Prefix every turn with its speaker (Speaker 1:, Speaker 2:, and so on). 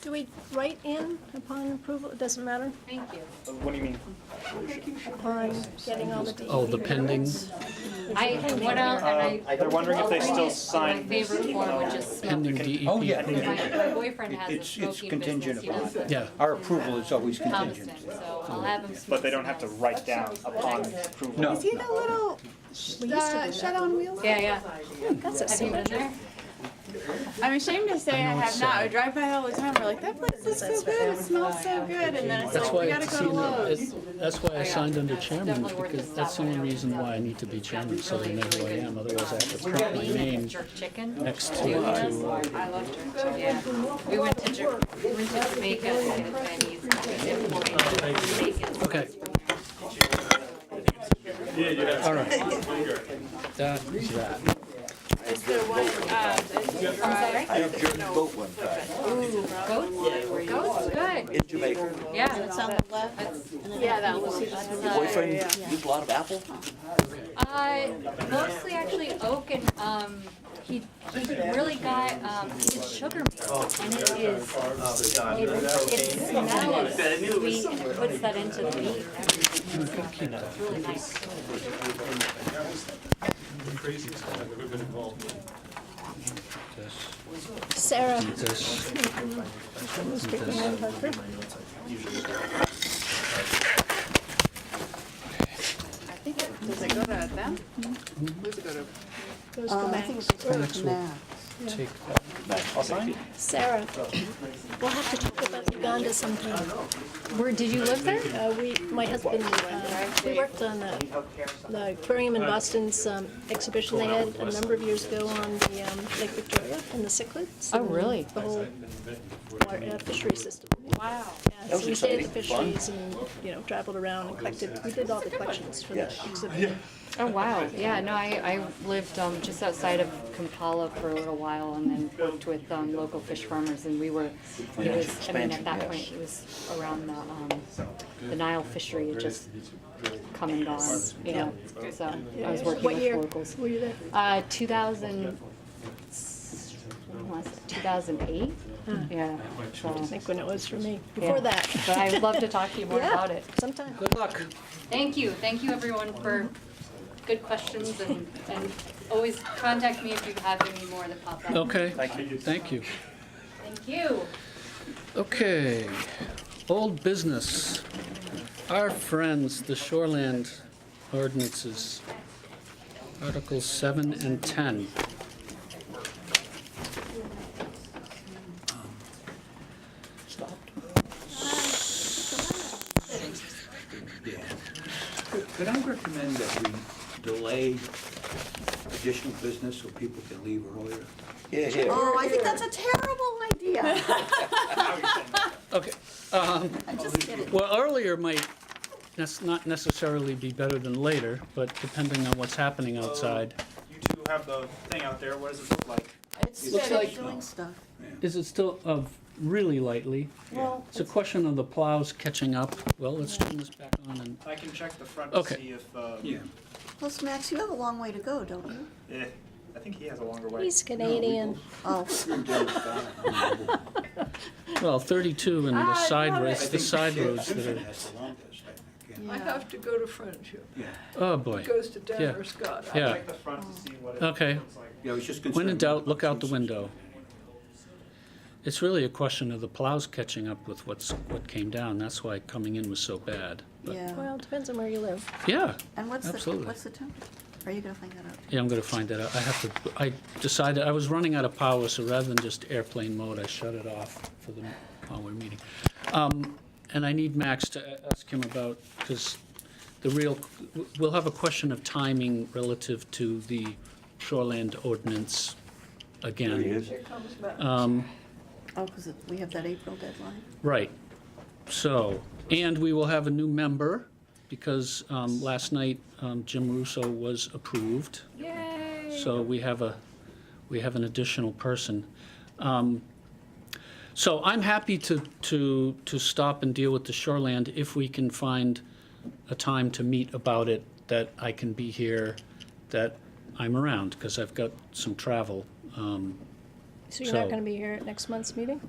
Speaker 1: do we write in upon approval? It doesn't matter?
Speaker 2: Thank you.
Speaker 3: What do you mean?
Speaker 1: Upon getting all the DEP.
Speaker 4: Oh, the pending,
Speaker 2: I went out
Speaker 3: Uh,
Speaker 2: and I.
Speaker 3: Um, They're wondering if they
Speaker 2: opened
Speaker 3: still
Speaker 2: it,
Speaker 3: sign. um,
Speaker 2: My favorite
Speaker 3: even
Speaker 2: form,
Speaker 3: though-
Speaker 2: which is
Speaker 4: pending E
Speaker 2: smoking.
Speaker 4: DEP.
Speaker 5: Oh, yeah,
Speaker 2: My
Speaker 5: yeah.
Speaker 2: my boyfriend has a
Speaker 5: It's, it's
Speaker 2: smoking
Speaker 5: contingent
Speaker 2: business, he
Speaker 5: upon.
Speaker 2: lives in
Speaker 4: Yeah.
Speaker 5: Our approval is always
Speaker 2: Thomaston,
Speaker 5: contingent.
Speaker 2: so I'll have him.
Speaker 3: But they don't have to write down upon approval.
Speaker 5: No.
Speaker 6: Is he the little
Speaker 1: We used to
Speaker 6: uh,
Speaker 1: do
Speaker 6: shed on wheels?
Speaker 2: Yeah, yeah.
Speaker 1: That's a
Speaker 2: Have you been there?
Speaker 6: I'm ashamed to say I have not. I drive by all the time. We're like, that place is so good. It smells so good. And then it's
Speaker 4: That's
Speaker 6: like,
Speaker 4: why
Speaker 6: we gotta
Speaker 4: it's
Speaker 6: go to
Speaker 4: seen,
Speaker 6: Lowe's.
Speaker 4: it's- that's why I signed under chairman, because that's the only reason why I need to be chairman, so they know who I am, otherwise I have to print my name
Speaker 2: Jerk chicken.
Speaker 4: next to,
Speaker 2: Do you know?
Speaker 4: to,
Speaker 2: I
Speaker 4: uh,
Speaker 2: love jerk chicken, yeah. We went to Jer, we went to Jamaica to get a Chinese. and we did Hawaiian, Jamaican.
Speaker 4: okay. All right. That is that.
Speaker 6: It's the one, um,
Speaker 2: I'm sorry?
Speaker 5: I have German boat one time
Speaker 2: Goats? Goats, good.
Speaker 5: in Jamaica.
Speaker 2: Yeah. It's on the left.
Speaker 6: "Oh, yeah, that was.
Speaker 5: Your boyfriend used a lot of apple?
Speaker 2: Uh, mostly actually oak and, um, he, he really got, um, he did sugar meal, and it is, it, it smells sweet and puts that into the meat. It's really nice.
Speaker 7: craziest thing I've ever been involved in.
Speaker 1: Sarah.
Speaker 4: This,
Speaker 1: speaking of her group.
Speaker 6: I think, it- does it go to them? Does it go to?
Speaker 1: Goes to Max.
Speaker 4: Max will take that.
Speaker 3: I'll sign.
Speaker 1: Sarah, we'll have to talk about Uganda sometime.
Speaker 2: Where, did you live there?
Speaker 1: Uh, we, my husband, uh, we worked on the, the aquarium in Boston's um, exhibition they had a number of years ago on the um, Lake Victoria and the cichlids.
Speaker 2: Oh,
Speaker 1: and
Speaker 2: really?
Speaker 1: The whole water, uh, fishery system.
Speaker 6: Wow.
Speaker 1: Yeah, so we stayed at the
Speaker 5: exciting.
Speaker 1: fisheries and, you know, traveled around and collected, we did all the collections for the
Speaker 5: Yes.
Speaker 1: exhibit.
Speaker 2: Oh, wow, yeah, no, I, I lived, um, just outside of Kampala for a little while and then worked with, um, local fish farmers and we were, it was, I mean, at that point, it was around the, um, the Nile fishery, it just come and gone, you know, so I was working
Speaker 1: What
Speaker 2: with
Speaker 1: year
Speaker 2: locals.
Speaker 1: were you there?
Speaker 2: Uh, two thousand, two thousand eight, yeah,
Speaker 1: I
Speaker 2: so,
Speaker 1: think when it was for me,
Speaker 2: yeah.
Speaker 1: before that.
Speaker 2: But I'd love to talk to you more
Speaker 1: Yeah.
Speaker 2: about it.
Speaker 1: Sometime.
Speaker 4: Good luck.
Speaker 2: Thank you, thank you everyone for good questions and, and always contact me if you have any more that pop up.
Speaker 4: Okay, thank you.
Speaker 2: Thank you.
Speaker 4: Okay, old business. Our friends, the Shoreland ordinances, Articles 7 and 10.
Speaker 5: Could I recommend that we delay additional business so people can leave earlier? Yeah, yeah.
Speaker 6: Oh, I think that's a terrible idea.
Speaker 4: Okay, um, well, earlier might, that's not necessarily be better than later, but depending on what's happening outside.
Speaker 3: You two have the thing out there, what does it look like?
Speaker 5: Looks like,
Speaker 4: Is it still of really lightly?
Speaker 6: Well,
Speaker 4: It's a question of the plows catching up. Well, let's turn this back on and,
Speaker 3: I can check the front to
Speaker 4: Okay.
Speaker 3: see if, uh,
Speaker 5: yeah.
Speaker 8: Plus, Max, you have a long way to go, don't you?
Speaker 3: eh, I think he has a longer way.
Speaker 1: He's Canadian.
Speaker 8: Oh,
Speaker 4: well, 32 and the side roads, the side roads that
Speaker 5: Simpson
Speaker 4: are,
Speaker 5: has the longest, I think,
Speaker 8: yeah.
Speaker 9: I have to go to Friendship.
Speaker 5: yeah.
Speaker 4: oh, boy.
Speaker 9: It goes to
Speaker 4: Yeah.
Speaker 9: Denver, Scott. I-
Speaker 4: Yeah.
Speaker 3: Check the front to see what it
Speaker 4: Okay.
Speaker 3: looks like.
Speaker 5: Yeah, I was just concerned.
Speaker 4: When in doubt, look out the
Speaker 5: Simpson.
Speaker 4: window. It's really a question of the plows catching up with what's, what came down. That's why coming in was so bad. But-
Speaker 8: yeah.
Speaker 1: Well, depends on where you live.
Speaker 4: Yeah,
Speaker 8: And what's the,
Speaker 4: absolutely.
Speaker 8: what's the temperature? Are you gonna find that out?
Speaker 4: yeah, I'm gonna find that out. I have to, I decided, I was running out of power, so rather than just airplane mode, I shut it off for the, while we're meeting. Um, and I need Max to a- ask him about, because the real, we'll have a question of timing relative to the shoreland ordinance again.
Speaker 5: There he is.
Speaker 9: Here comes Matt.
Speaker 8: Oh, because we have that April deadline.
Speaker 4: Right. So, and we will have a new member, because um, last night um, Jim Russo was approved.
Speaker 2: Yay.
Speaker 4: So we have a, we have an additional person. Um, So I'm happy to, to, to stop and deal with the shoreland if we can find a time to meet about it, that I can be here, that I'm around, because I've got some travel. Um,
Speaker 1: So you're not
Speaker 4: So-
Speaker 1: gonna be here at next month's meeting?